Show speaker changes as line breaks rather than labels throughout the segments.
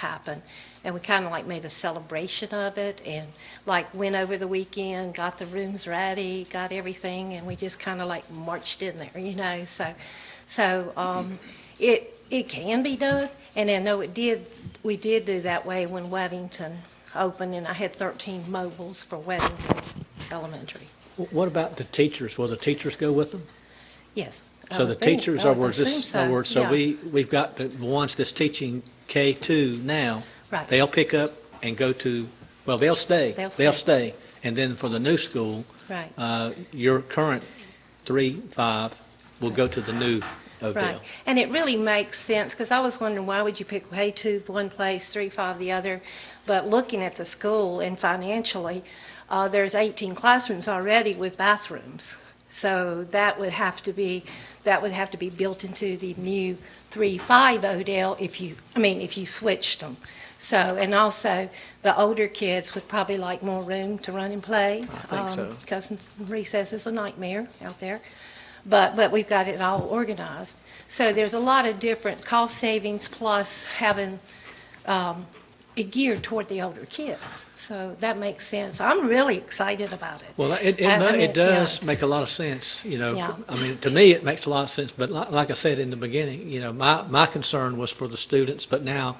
happened. And we kind of like made a celebration of it and like went over the weekend, got the rooms ready, got everything, and we just kind of like marched in there, you know? So, so um, it, it can be done. And I know it did, we did do that way when Weddington opened, and I had 13 mobiles for Weddington Elementary.
Wh- What about the teachers? Will the teachers go with them?
Yes. I
So
would
the
think-
teachers,
I
are
would
words,
assume
this, in other words, so
yeah.
we, we've got the ones that's teaching K-2 now.
Right.
They'll pick up and go to, well, they'll stay.
They'll
stay. And then for the new school,
Right.
uh, your current three, five will go to the new
Right,
Odell.
and it really makes sense, because I was wondering, why would you pick way two one place, three five the other? But looking at the school and financially, uh, there's 18 classrooms already with bathrooms. So that would have to be, that would have to be built into the new three five Odell if you, I mean, if you switched them. So, and also, the older kids would probably like more room to run and play. I
think so.
Because recess is a nightmare out there but, but we've got it all organized. So there's a lot of different cost savings plus having um, it geared toward the older kids. So that makes sense. I'm really excited about it.
Well, it, it,
I- I
mu-
mean,
it does
yeah.
make a lot of sense, you know.
Yeah.
I mean, to me, it makes a lot of sense, but like, like I said in the beginning, you know, my, my concern was for the students, but now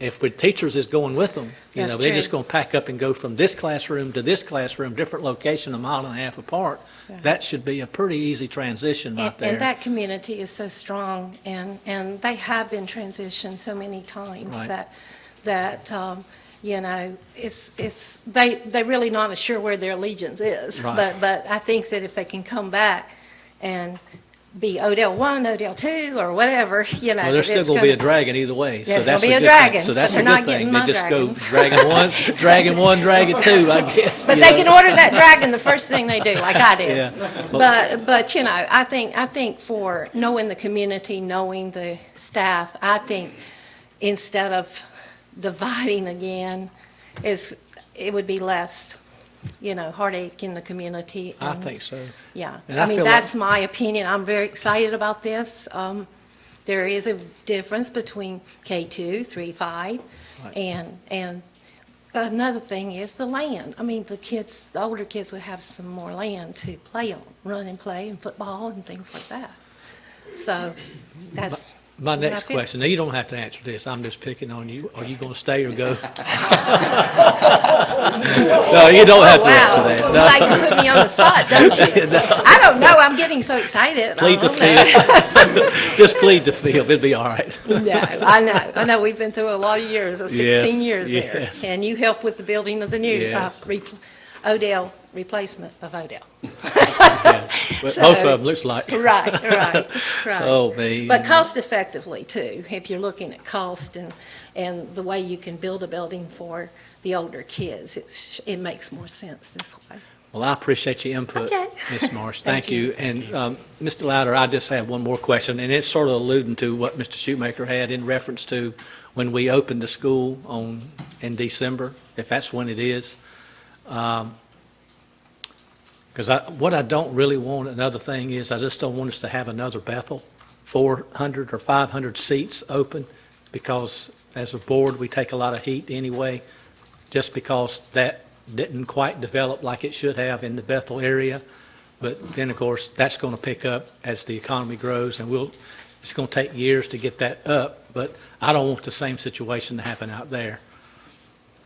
if the teachers is going with them, you
That's
know, they're just
true.
going to pack up and go from this classroom to this classroom, different location, a mile and a half apart. That should be a pretty easy transition right
And- And
there.
that community is so strong, and, and they have been transitioned so many times
Right.
that, that, um, you know, it's, it's, they, they're really not sure where their allegiance is.
Right.
But, but I think that if they can come back and be Odell one, Odell two, or whatever, you know.
Well, there's still
it's
going to be a
gonna-
dragon either way, so
There's
that's a
gonna
good
be a
thing.
dragon,
So that's
but
a
they're not
good thing.
getting
They
my
just go
dragon.
dragon one, dragon one, dragon two, I guess.
But
you
they
know.
can order that dragon the first thing they do, like I
Yeah.
did. But, but, you know, I think, I think for knowing the community, knowing the staff, I think instead of dividing again, is, it would be less, you know, heartache in the community.
I
and-
think so.
Yeah.
and I
I mean,
feel like-
that's my opinion. I'm very excited about this. Um, There is a difference between K-2, 3, 5,
Right.
and, and Another thing is the land. I mean, the kids, the older kids would have some more land to play on, run and play and football and things like that. So that's.
My next
I feel-
question, now you don't have to answer this, I'm just picking on you. Are you going to stay or go? No, you don't have
Oh,
to
Wow,
answer
you
that.
like to put me on the spot, don't you? I don't know, I'm getting so excited. I
Plead the
don't know.
fifth. Just plead the fifth, it'll be all right.
No, I know, I know, we've been through a lot of years, uh, 16
Yes,
years there.
yes.
And you helped with the building of the new uh,
Yes.
repl- Odell, replacement of Odell.
Yeah. But Both of them looks like,
Right, right, right.
oh, me.
But cost effectively too, if you're looking at cost and, and the way you can build a building for the older kids, it's, it makes more sense this way.
Well, I appreciate your input,
Okay.
Ms. Marsh.
Thank
Thank you. And um, Mr. Louder, I just have one more question, and it's sort of alluding to what Mr. Shoemaker had in reference to when we opened the school on, in December, if that's when it is. Because I, what I don't really want, another thing is, I just don't want us to have another Bethel, 400 or 500 seats open, because as a board, we take a lot of heat anyway, just because that didn't quite develop like it should have in the Bethel area. But then, of course, that's going to pick up as the economy grows, and we'll, it's going to take years to get that up, but I don't want the same situation to happen out there.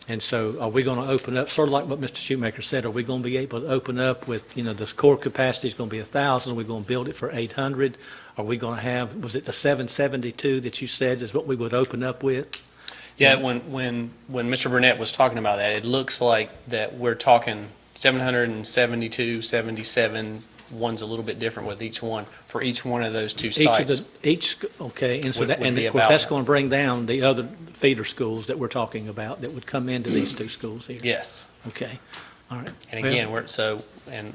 And so are we going to open up, sort of like what Mr. Shoemaker said, are we going to be able to open up with, you know, this core capacity is going to be 1,000, we're going to build it for 800? Are we going to have, was it the 772 that you said is what we would open up with?
Yeah, when, when, when Mr. Burnett was talking about that, it looks like that we're talking 772, 77, one's a little bit different with each one, for each one of those two
Each of
sites.
the Each, sc- okay, and so
Would-
that,
would
and
be
of course,
about
that's
that.
going to bring down the other feeder schools that we're talking about that would come into these two schools here.
Yes,
Okay, all right.
and
Well-
again, we're, so, and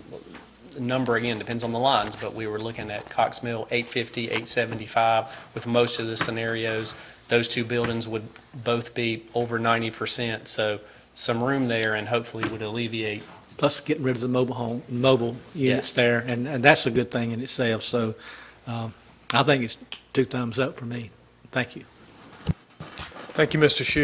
the number again depends on the lines, but we were looking at Cox Mill, 850, 875, with most of the scenarios, those two buildings would both be over 90%, so some room there and hopefully would alleviate
plus getting rid of the mobile home, mobile units
Yes.
there, and, and that's a good thing in itself, so, um, I think it's two thumbs up for me. Thank you.
Thank you, Mr. Shu.